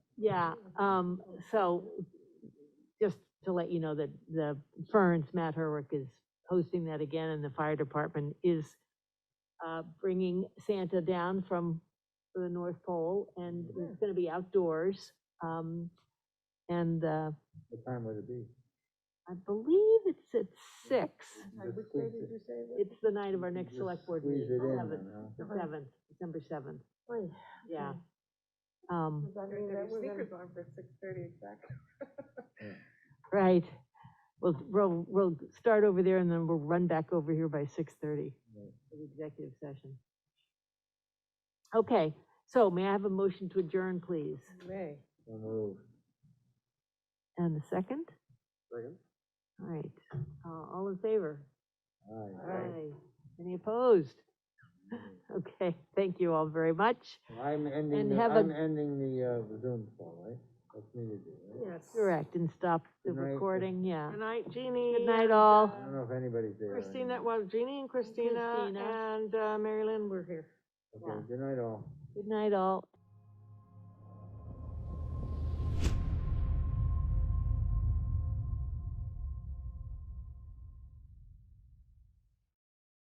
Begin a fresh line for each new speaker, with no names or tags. Yeah, um, so just to let you know that the Ferns, Matt Herwick is hosting that again and the fire department is uh, bringing Santa down from the North Pole and it's gonna be outdoors. Um, and, uh,
What time would it be?
I believe it's at six.
Just
Which day
squeeze
did
it-
you say? that-
It's the night of our
you
next
just
select board
squeeze
meeting,
it in
seventh,
then, huh?
the seventh, December seventh,
Oy,
yeah.
okay.
Um,
Does that
Better
mean
get
that
your
we're gonna-
sneakers on for six thirty exactly.
Right. We'll, we'll, we'll start over there and then we'll run back over here by six thirty
Right.
for the executive session. Okay, so may I have a motion to adjourn, please?
May.
So moved.
And a second?
Second?
All right, uh, all in favor?
Aye.
Aye. Any opposed? Okay, thank you all very much.
I'm ending,
And
the-
have a-
I'm ending the, uh, Zoom call, right? That's me to do, right?
Yes.
Correct, and stop the
Good night.
recording, yeah.
Good night, Jeannie.
Good night,
and,
all.
I
uh,
don't know if anybody's there. or
Christina,
anything.
well, Jeannie and Christina
Christina.
and uh, Mary Lynn were here.
yeah.
Okay, good night all.
Good night all.